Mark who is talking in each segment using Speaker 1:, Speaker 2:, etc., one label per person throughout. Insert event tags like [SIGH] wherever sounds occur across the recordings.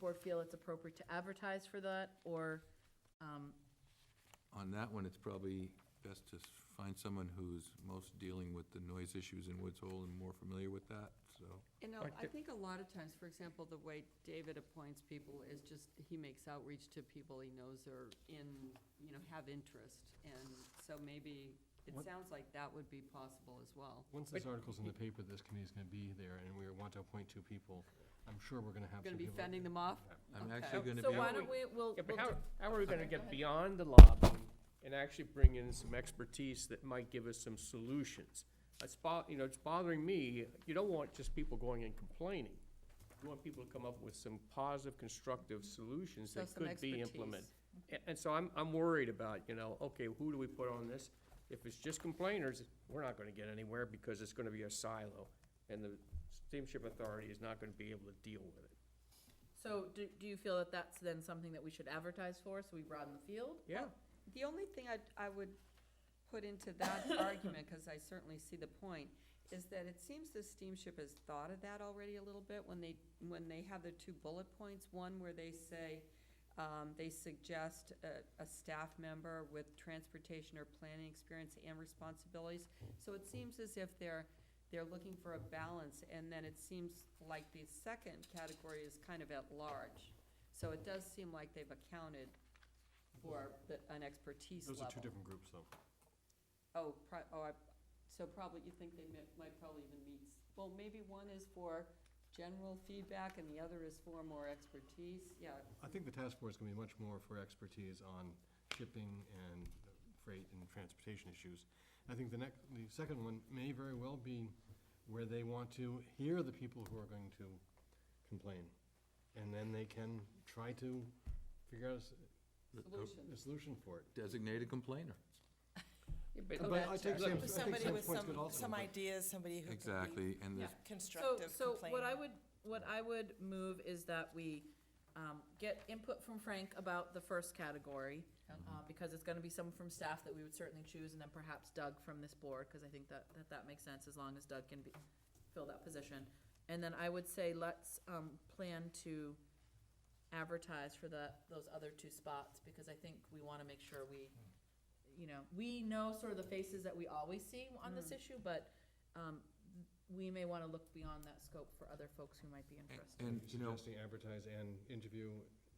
Speaker 1: board feel it's appropriate to advertise for that, or, um,
Speaker 2: On that one, it's probably best to s- find someone who's most dealing with the noise issues in Woods Hole and more familiar with that, so.
Speaker 3: You know,
Speaker 4: Like
Speaker 3: I
Speaker 4: the-
Speaker 3: think a lot of times, for example, the way David appoints people is just, he makes outreach to people he knows are in, you know, have interest. And so maybe, it
Speaker 4: What-
Speaker 3: sounds like that would be possible as well.
Speaker 5: Once this article's in the paper, this committee's gonna be there, and we want to appoint two people, I'm sure we're gonna have
Speaker 3: Gonna
Speaker 5: some people.
Speaker 3: be fending them off?
Speaker 2: I'm
Speaker 3: Okay.
Speaker 2: actually gonna
Speaker 1: so
Speaker 2: be,
Speaker 1: why
Speaker 2: out-
Speaker 1: don't we, we'll, we'll
Speaker 4: Yeah, but how,
Speaker 1: do-
Speaker 4: how are we gonna
Speaker 1: Okay, go
Speaker 4: get
Speaker 1: ahead.
Speaker 4: beyond the lobby and actually bring in some expertise that might give us some solutions? It's bo, you know, it's bothering me, you don't want just people going and complaining. You want people to come up with some positive, constructive solutions
Speaker 3: So
Speaker 4: that
Speaker 3: some
Speaker 4: could be
Speaker 3: expertise.
Speaker 4: implemented. And, and so I'm, I'm worried about, you know, okay, who do we put on this? If it's just complainers, we're not gonna get anywhere because it's gonna be a silo, and the steamship authority is not gonna be able to deal with it.
Speaker 1: so do, do you feel that that's then something that we should advertise for, so we broaden the field?
Speaker 4: Yeah,
Speaker 3: The only thing I, I would put into that argument, because I certainly see the point, is that it seems the steamship has thought of that already a little bit when they, when they have their two bullet points. One where they say, um, they suggest a, a staff member with transportation or planning experience and responsibilities. So it seems as if they're, they're looking for a balance, and then it seems like the second category is kind of at large. So it does seem like they've accounted for the- an expertise
Speaker 5: Those
Speaker 3: level.
Speaker 5: are two different groups, though.
Speaker 3: Oh, pro- oh, I, so probably, you think they mi- might probably even meet, s- well, maybe one is for general feedback and the other is for more expertise, yeah.
Speaker 5: I think the task force is gonna be much more for expertise on shipping and freight and transportation issues. I think the next, the second one may very well be where they want to hear the people who are going to complain. And then they can try to figure out a s-
Speaker 2: the- the
Speaker 3: Solution.
Speaker 5: a solution for it.
Speaker 2: designate a complainer.
Speaker 4: Yeah, but-
Speaker 5: But I take
Speaker 1: Okay.
Speaker 5: Sam's, I
Speaker 6: With
Speaker 5: think
Speaker 6: Somebody
Speaker 5: Sam's
Speaker 6: with
Speaker 5: point's
Speaker 6: some,
Speaker 5: good also,
Speaker 6: some
Speaker 5: but-
Speaker 6: ideas, somebody who could be
Speaker 2: Exactly, and there's,
Speaker 1: So,
Speaker 6: constructive
Speaker 1: so what I
Speaker 6: complaining.
Speaker 1: would, what I would move is that we um, get input from Frank about the first category, uh, because it's gonna be someone from staff that we would certainly choose, and then perhaps Doug from this board, because I think that, that that makes sense, as long as Doug can be, fill that position. And then I would say, let's um, plan to advertise for the, those other two spots, because I think we wanna make sure we, you know, we know sort of the faces that we always see on this issue, but um, we may wanna look beyond that scope for other folks who might be
Speaker 2: Mm.
Speaker 1: interested.
Speaker 2: and, you know,
Speaker 5: Suggesting advertise and interview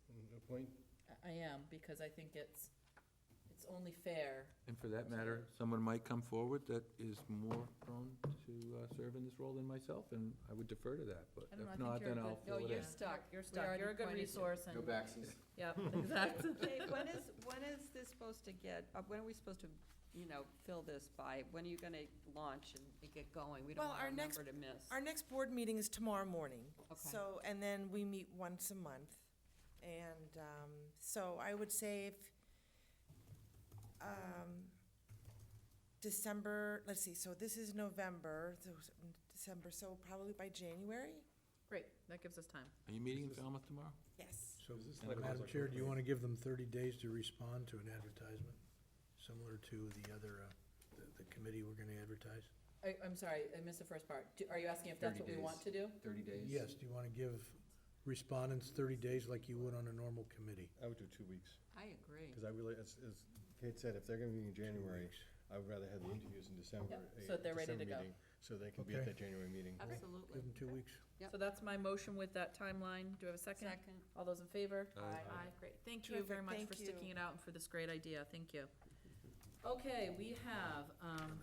Speaker 5: and appoint.
Speaker 1: I- I am, because I think it's, it's only fair.
Speaker 2: and for that matter, someone might come forward that is more prone to uh, serve in this role than myself, and I would defer to that, but
Speaker 1: I don't know, I
Speaker 2: if
Speaker 1: think oh,
Speaker 2: not,
Speaker 1: you're a
Speaker 2: then I'll
Speaker 1: good-
Speaker 3: No,
Speaker 2: fill it in.
Speaker 3: you're stuck.
Speaker 1: You're
Speaker 3: We
Speaker 1: stuck,
Speaker 3: already
Speaker 1: you're a good
Speaker 3: pointed you.
Speaker 1: resource and,
Speaker 2: back,
Speaker 1: yeah, exactly.
Speaker 3: Okay,
Speaker 1: [LAUGHS]
Speaker 3: when is, when is this supposed to get, uh, when are we supposed to, you know, fill this by? When are you gonna launch and get going? We don't
Speaker 6: Well,
Speaker 3: want
Speaker 6: our
Speaker 3: our
Speaker 6: next-
Speaker 3: number to miss.
Speaker 6: Our next board meeting is tomorrow morning.
Speaker 3: Okay.
Speaker 6: So, and then we meet once a month. And, um, so I would say if, um, December, let's see, so this is November, so s- December, so probably by January?
Speaker 1: Great, that gives us time.
Speaker 2: Are you meeting in Falmouth tomorrow?
Speaker 6: Yes.
Speaker 7: So,
Speaker 5: Is this
Speaker 2: Madam
Speaker 5: like a
Speaker 7: Madam
Speaker 5: public
Speaker 7: Chair, do you
Speaker 5: complaint?
Speaker 7: want to give them thirty days to respond to an advertisement, similar to the other, uh, the- the committee we're going to advertise?
Speaker 1: I, I'm sorry, I missed the first part. Do- Are you asking if that's what
Speaker 2: 30
Speaker 1: we want to do?
Speaker 2: Thirty days.
Speaker 7: Yes, do you want to give respondents thirty days like you would on a normal committee?
Speaker 5: I would do two weeks,
Speaker 3: I agree.
Speaker 5: because I really, as, as Kate said, if they're gonna be in January, I would rather have the interviews in December.
Speaker 1: Yeah,
Speaker 5: a
Speaker 1: so that they're ready to
Speaker 5: December
Speaker 1: go.
Speaker 5: meeting, So they can be at
Speaker 7: Okay.
Speaker 5: that January meeting.
Speaker 3: Absolutely.
Speaker 7: Give them two weeks.
Speaker 3: Yep.
Speaker 1: So that's my motion with that timeline. Do I have a second?
Speaker 3: Second.
Speaker 1: All those in favor?
Speaker 2: Aye.
Speaker 1: Aye, great. Thank you very
Speaker 6: Terrific,
Speaker 1: much
Speaker 6: thank
Speaker 1: for
Speaker 6: you.
Speaker 1: sticking it out and for this great idea. Thank you. Okay, we have, um,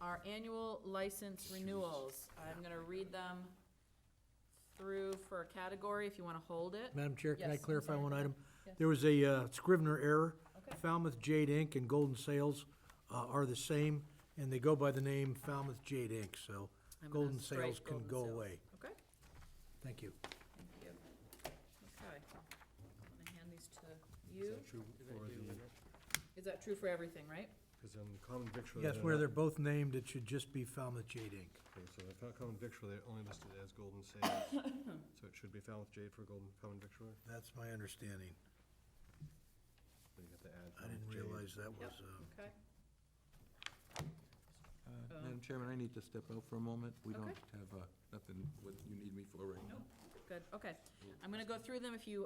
Speaker 1: our annual license renewals. I'm gonna read them through for a category if you wanna hold it.
Speaker 7: Madam Chair, can I
Speaker 1: Yes, I'm
Speaker 7: clarify
Speaker 1: sorry.
Speaker 7: one item?
Speaker 1: Yes.
Speaker 7: There was a uh, Scrivener error.
Speaker 1: Okay.
Speaker 7: Falmouth Jade Inc. and Golden Sales uh, are the same, and they go by the name Falmouth Jade Inc., so
Speaker 1: I'm gonna
Speaker 7: Golden Sales
Speaker 1: strike
Speaker 7: can
Speaker 1: Golden
Speaker 7: go
Speaker 1: Sales.
Speaker 7: away.
Speaker 1: Okay,
Speaker 7: Thank you.
Speaker 1: thank you. Okay. I'm gonna hand these to you.
Speaker 5: True for the,
Speaker 1: Is that true for everything, right?
Speaker 5: because on the common victual.
Speaker 7: Yes, where they're both named, it should just be Falmouth Jade Inc.
Speaker 5: Okay, so the Fal- common victual, they're only listed as Golden
Speaker 1: [COUGHS]
Speaker 5: Sales, so it should be Falmouth Jade for Golden Common Victual,
Speaker 7: That's my understanding.
Speaker 5: but you have to add.
Speaker 7: I didn't
Speaker 5: Falmouth Jade.
Speaker 7: realize that
Speaker 1: Yep.
Speaker 7: was, uh,
Speaker 1: Okay.
Speaker 2: Uh, Madam Chairman, I need to step out for a moment. We
Speaker 1: Okay.
Speaker 2: don't have, uh, nothing, what you need me for right now.
Speaker 1: Good, okay. I'm gonna go through them. If you